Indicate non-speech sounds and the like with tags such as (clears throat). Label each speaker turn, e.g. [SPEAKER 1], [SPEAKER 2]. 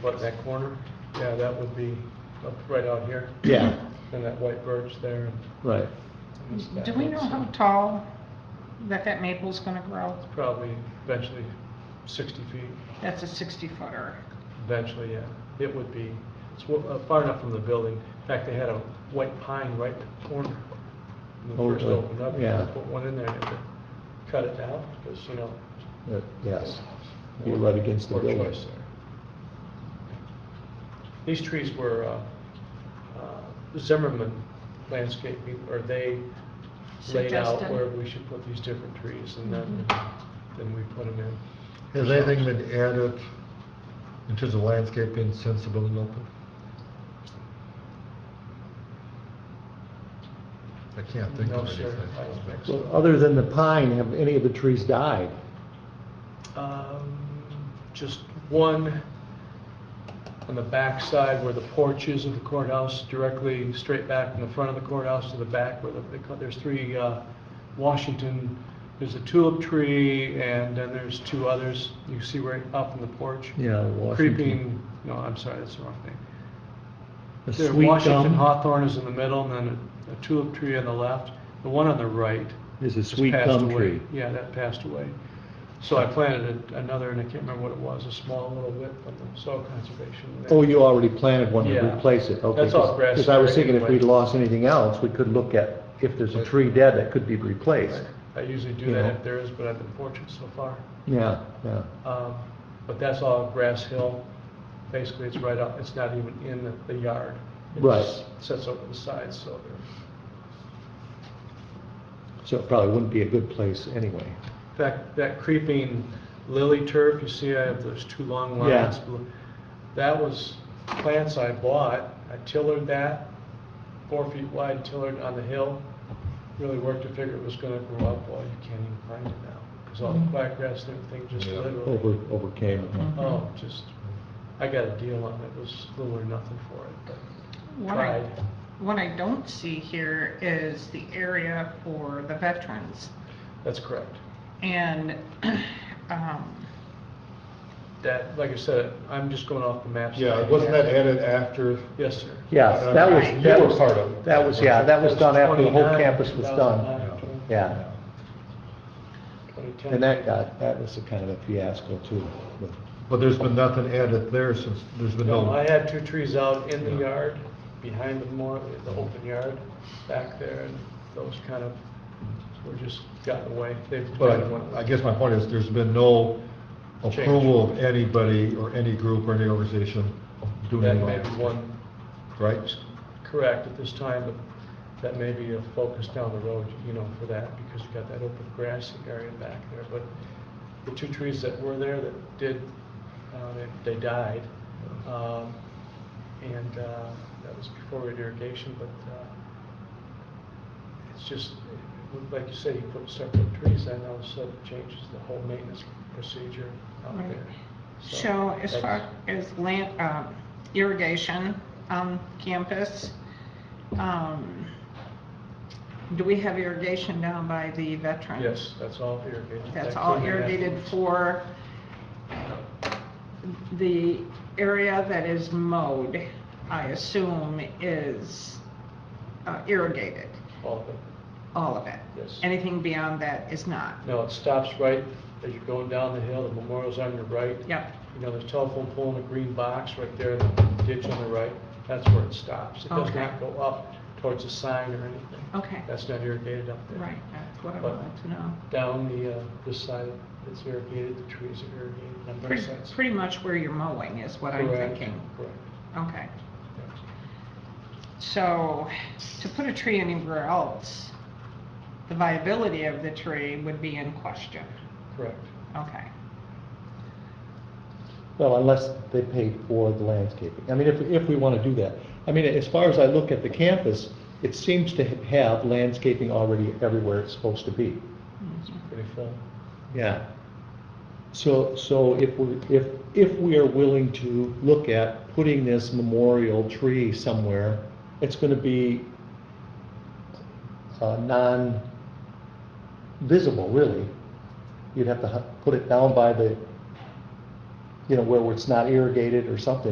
[SPEAKER 1] what, that corner? Yeah, that would be up right out here,
[SPEAKER 2] Yeah,
[SPEAKER 1] and that white birch there. and-
[SPEAKER 2] (clears throat) right.
[SPEAKER 1] and this back
[SPEAKER 3] Do we
[SPEAKER 1] one,
[SPEAKER 3] know
[SPEAKER 1] so
[SPEAKER 3] how tall that that maple's gonna grow?
[SPEAKER 1] Probably eventually sixty feet,
[SPEAKER 3] That's a sixty footer.
[SPEAKER 1] eventually, yeah. It would be, it's wa- uh, far enough from the building. In fact, they had a white pine right in the corner. When
[SPEAKER 2] Oh,
[SPEAKER 1] it first
[SPEAKER 2] really?
[SPEAKER 1] opened up,
[SPEAKER 2] Yeah.
[SPEAKER 1] I put one in there, and they cut it down, because, you know.
[SPEAKER 2] Uh, Yes, you're right against the
[SPEAKER 1] poor
[SPEAKER 2] building.
[SPEAKER 1] choice there. These trees were uh, uh, Zimmerman landscaping, or they laid out
[SPEAKER 3] Suggested.
[SPEAKER 1] where we should put these different trees, and then, then we put them in.
[SPEAKER 4] Has anything been added in terms of landscaping since the building opened? I can't think
[SPEAKER 1] No,
[SPEAKER 4] of
[SPEAKER 1] sir,
[SPEAKER 4] anything.
[SPEAKER 1] I don't think
[SPEAKER 2] Well, other than the pine, have any of the trees died?
[SPEAKER 1] Um, Just one on the back side where the porch is of the courthouse, directly straight back from the front of the courthouse to the back where the, they cut- there's three, uh, Washington, there's a tulip tree and then there's two others. You see right up in the porch.
[SPEAKER 2] Yeah, Washington.
[SPEAKER 1] Creeping, no, I'm sorry, that's the wrong thing.
[SPEAKER 2] The
[SPEAKER 1] There,
[SPEAKER 2] sweet
[SPEAKER 1] Washington
[SPEAKER 2] gum
[SPEAKER 1] hawthorn is in the middle and then a- a tulip tree on the left. The one on the right
[SPEAKER 2] Is a
[SPEAKER 1] just
[SPEAKER 2] sweet
[SPEAKER 1] passed
[SPEAKER 2] gum
[SPEAKER 1] away.
[SPEAKER 2] tree.
[SPEAKER 1] Yeah, that passed away. So I planted a- another, and I can't remember what it was, a small little whip from the soil conservation.
[SPEAKER 2] Oh, you already planted one to
[SPEAKER 1] Yeah.
[SPEAKER 2] replace it, okay.
[SPEAKER 1] That's all grass
[SPEAKER 2] Because I was
[SPEAKER 1] there
[SPEAKER 2] thinking if
[SPEAKER 1] anyway.
[SPEAKER 2] we'd lost anything else, we could look at if there's a tree dead that could be replaced.
[SPEAKER 1] I usually do
[SPEAKER 2] you know.
[SPEAKER 1] that if there is, but I've been fortunate so far.
[SPEAKER 2] Yeah, yeah.
[SPEAKER 1] Um, But that's all grass hill. Basically, it's right up, it's not even in the- the yard. It
[SPEAKER 2] Right.
[SPEAKER 1] just Sits over the sides, so they're.
[SPEAKER 2] So it probably wouldn't be a good place anyway.
[SPEAKER 1] That, that creeping lily turf, you see I have those two long
[SPEAKER 2] Yeah.
[SPEAKER 1] lines. That was plants I bought, I tillered that, four feet wide, tillered on the hill. Really worked to figure it was gonna grow up, well, you can't even find it now, because all the black grass and everything just
[SPEAKER 4] Yeah.
[SPEAKER 2] Mm-hmm. Over,
[SPEAKER 1] literally.
[SPEAKER 2] overcame. it.
[SPEAKER 1] Oh, just, I got a deal on it, it was little or nothing for it, but
[SPEAKER 3] What I,
[SPEAKER 1] tried.
[SPEAKER 3] what I don't see here is the area for the veterans.
[SPEAKER 1] That's correct.
[SPEAKER 3] And, (clears throat) um,
[SPEAKER 1] That, like I said, I'm just going off the maps.
[SPEAKER 4] Yeah, wasn't that added after?
[SPEAKER 1] Yes, sir.
[SPEAKER 2] Yes,
[SPEAKER 4] Uh,
[SPEAKER 2] that was,
[SPEAKER 3] Right.
[SPEAKER 2] that
[SPEAKER 4] You were
[SPEAKER 2] was,
[SPEAKER 4] part of it.
[SPEAKER 2] that was, yeah, that was done after the whole
[SPEAKER 1] 29,
[SPEAKER 2] campus was done.
[SPEAKER 1] 2009,
[SPEAKER 2] Yeah, and
[SPEAKER 1] 2010.
[SPEAKER 2] that got, that was a kind of a fiasco too. with-
[SPEAKER 4] But there's been nothing added there since, there's been
[SPEAKER 1] No, I
[SPEAKER 4] no,
[SPEAKER 1] had two trees out in the
[SPEAKER 4] Yeah.
[SPEAKER 1] yard, behind the more, the open yard, back there, and those kind of were just gotten away. They've
[SPEAKER 4] but
[SPEAKER 1] kind of went
[SPEAKER 4] I- I
[SPEAKER 1] away.
[SPEAKER 4] guess my point is, there's been no approval of anybody or any group or any organization doing
[SPEAKER 1] That
[SPEAKER 4] anything
[SPEAKER 1] may
[SPEAKER 4] like
[SPEAKER 1] be
[SPEAKER 4] that.
[SPEAKER 1] one,
[SPEAKER 4] Right?
[SPEAKER 1] correct at this time, but that may be a focus down the road, you know, for that, because you got that open grassy area back there. But the two trees that were there that did, uh, they, they died. Um, and, uh, that was before we had irrigation, but, uh, it's just, like you said, you put separate trees, in, all of a sudden it changes the whole maintenance procedure out
[SPEAKER 3] Right.
[SPEAKER 1] there.
[SPEAKER 3] so as
[SPEAKER 1] that's-
[SPEAKER 3] far as land, um, irrigation on campus, um, do we have irrigation down by the veterans?
[SPEAKER 1] Yes, that's all irrigated.
[SPEAKER 3] That's
[SPEAKER 1] That
[SPEAKER 3] all
[SPEAKER 1] couldn't happen.
[SPEAKER 3] irrigated for the area that is mowed, I assume, is uh, irrigated,
[SPEAKER 1] All of it.
[SPEAKER 3] all of it.
[SPEAKER 1] Yes.
[SPEAKER 3] Anything beyond that is not.
[SPEAKER 1] No, it stops right as you're going down the hill, the memorial's on your right.
[SPEAKER 3] Yep,
[SPEAKER 1] You know, there's telephone pole in a green box right there, the ditch on the right, that's where it stops. It does
[SPEAKER 3] Okay.
[SPEAKER 1] not go up towards the sign or anything.
[SPEAKER 3] okay,
[SPEAKER 1] That's not irrigated up there.
[SPEAKER 3] right, that's what I
[SPEAKER 1] But-
[SPEAKER 3] wanted to know.
[SPEAKER 1] Down the, uh, this side, it's irrigated, the trees are irrigated on both
[SPEAKER 3] Pretty,
[SPEAKER 1] sides.
[SPEAKER 3] pretty much where you're mowing is what I'm
[SPEAKER 1] Correct,
[SPEAKER 3] thinking.
[SPEAKER 1] Correct.
[SPEAKER 3] Okay,
[SPEAKER 1] Yeah.
[SPEAKER 3] so to put a tree anywhere else, the viability of the tree would be in question.
[SPEAKER 1] Correct.
[SPEAKER 3] Okay.
[SPEAKER 2] Well, unless they paid for the landscaping. I mean, if, if we want to do that. I mean, as far as I look at the campus, it seems to have landscaping already everywhere it's supposed to be.
[SPEAKER 1] Pretty full.
[SPEAKER 2] Yeah. So, so if we, if, if we are willing to look at putting this memorial tree somewhere, it's gonna be uh, non-visible, really. You'd have to hu- put it down by the, you know, where it's not irrigated or something.